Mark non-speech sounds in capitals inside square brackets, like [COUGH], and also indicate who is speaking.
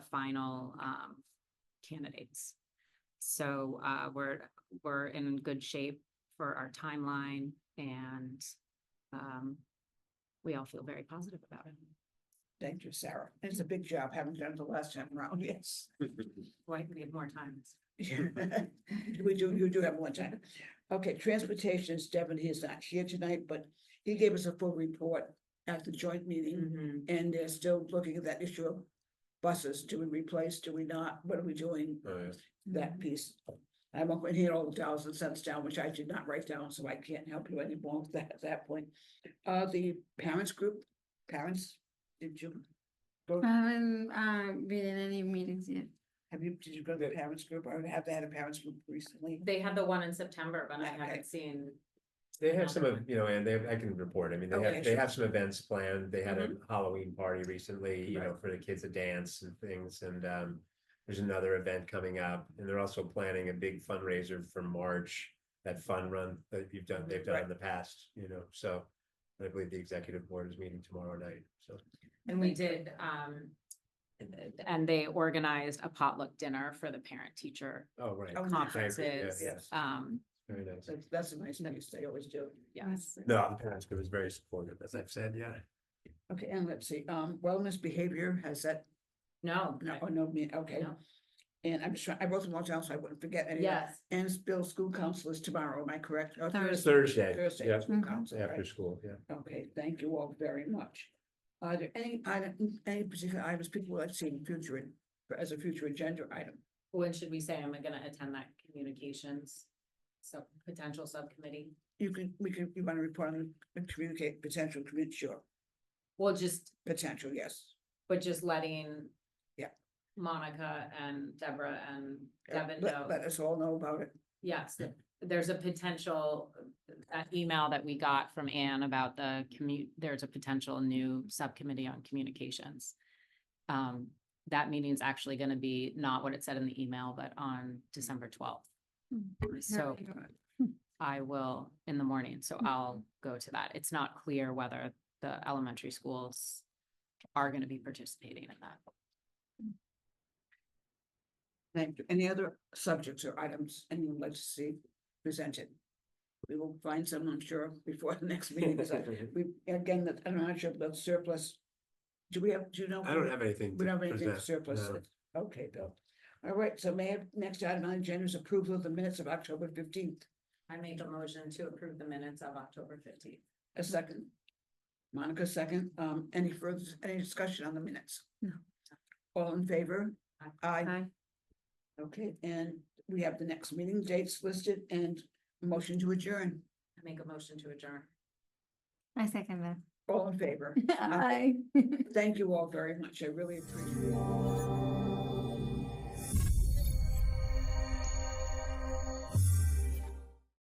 Speaker 1: final um candidates. So uh we're, we're in good shape for our timeline and um we all feel very positive about it.
Speaker 2: Thank you, Sarah. It's a big job, having done it the last time around, yes.
Speaker 1: Why we have more time?
Speaker 2: We do, you do have one time. Okay, transportation, Devin, he is not here tonight, but he gave us a full report at the joint meeting.
Speaker 1: Mm. Mm-hmm.
Speaker 2: And they're still looking at that issue of buses, do we replace, do we not, what are we doing,
Speaker 3: Right.
Speaker 2: that piece. I'm up in here all the dollars and cents down, which I did not write down, so I can't help you anymore with that, at that point. Uh, the parents group, parents, did you? Go,
Speaker 4: I haven't uh, been in any meetings yet.
Speaker 2: have you, did you go to the parents group, or have they had a parents group recently?
Speaker 1: They had the one in September, but I
Speaker 2: Okay.
Speaker 1: haven't seen.
Speaker 3: They have some, of you know, and they, I can report, I mean, they
Speaker 2: Okay,
Speaker 3: have, they
Speaker 2: Oh, sure. Mm-hmm.
Speaker 3: have some events planned, they had a Halloween party recently, you know, for the kids to dance and things, and, um. There's another event coming up, and they're also planning a big fundraiser for March, that fun run that you've
Speaker 2: Mm-hmm.
Speaker 3: done, they've done in the past, you know, so. I believe the executive board is meeting tomorrow night, so.
Speaker 1: And we did, um, and they organized a potluck dinner for the parent teacher
Speaker 3: Oh, right,
Speaker 2: Oh, nice.
Speaker 1: conferences.
Speaker 3: yes.
Speaker 1: Um,
Speaker 3: very nice.
Speaker 2: That's, that's a nice piece, they always do.
Speaker 1: yes.
Speaker 3: No, the parents group is very supportive, as I've said, yeah.
Speaker 2: Okay, and let's see, um, wellness behavior, has that,
Speaker 1: No.
Speaker 2: no, oh, no, me, okay,
Speaker 1: No.
Speaker 2: and I'm just trying, I wrote them all down, so I wouldn't forget any. of that.
Speaker 1: Yes.
Speaker 2: And it's Bill school council is tomorrow, am I correct? Or
Speaker 4: Thursday.
Speaker 3: Thursday,
Speaker 2: Thursday,
Speaker 3: yeah,
Speaker 2: school
Speaker 4: Mhm.
Speaker 2: council, right?
Speaker 3: after school,
Speaker 2: [LAUGHS]
Speaker 3: yeah.
Speaker 2: Okay, thank you all very much. Are there any, item- any particular items people would like to see in future, in- for- as a future agenda item?
Speaker 1: When should we say I'm gonna attend that communications? So potential subcommittee?
Speaker 2: You can, we can, you want to report on the communicate, potential, commu- sure,
Speaker 1: Well, just,
Speaker 2: potential, yes.
Speaker 1: but just letting.
Speaker 2: Yeah.
Speaker 1: Monica and Deborah and
Speaker 2: Yeah,
Speaker 1: Devin know.
Speaker 2: Let, let us all know about it.
Speaker 1: Yes, th- there's a potential, that email that we got from Ann about the commute, there's a potential new subcommittee on communications. Um, that meeting's actually gonna be not what it said in the email, but on December twelfth. So I will in the morning, so I'll go to that. It's not clear whether the elementary schools are gonna be participating in that.
Speaker 2: Thank you. Any other subjects or items anyone would like to see presented? We will find some, I'm sure, before the next meeting, [LAUGHS] because I- we, again, that- I'm not sure about surplus. Do we have, do you know?
Speaker 3: I don't have anything.
Speaker 2: We
Speaker 3: to
Speaker 2: don't have anything
Speaker 3: present,
Speaker 2: surplus.
Speaker 3: no.
Speaker 2: Okay, Bill. All right, so may I have next item on the agenda is approval of the minutes of October fifteenth,
Speaker 1: I make a motion to approve the minutes of October fifteenth.
Speaker 2: a second. Monica, second. Um, any further, any discussion on the minutes?
Speaker 4: No.
Speaker 2: All in favor?
Speaker 1: Aye.
Speaker 2: Aye.
Speaker 4: Hi.
Speaker 2: Okay, and we have the next meeting dates listed and motion to adjourn.
Speaker 1: I make a motion to adjourn.
Speaker 4: I second
Speaker 2: All in favor?
Speaker 4: that. Hi.
Speaker 2: Thank you all very much. I really appreciate it.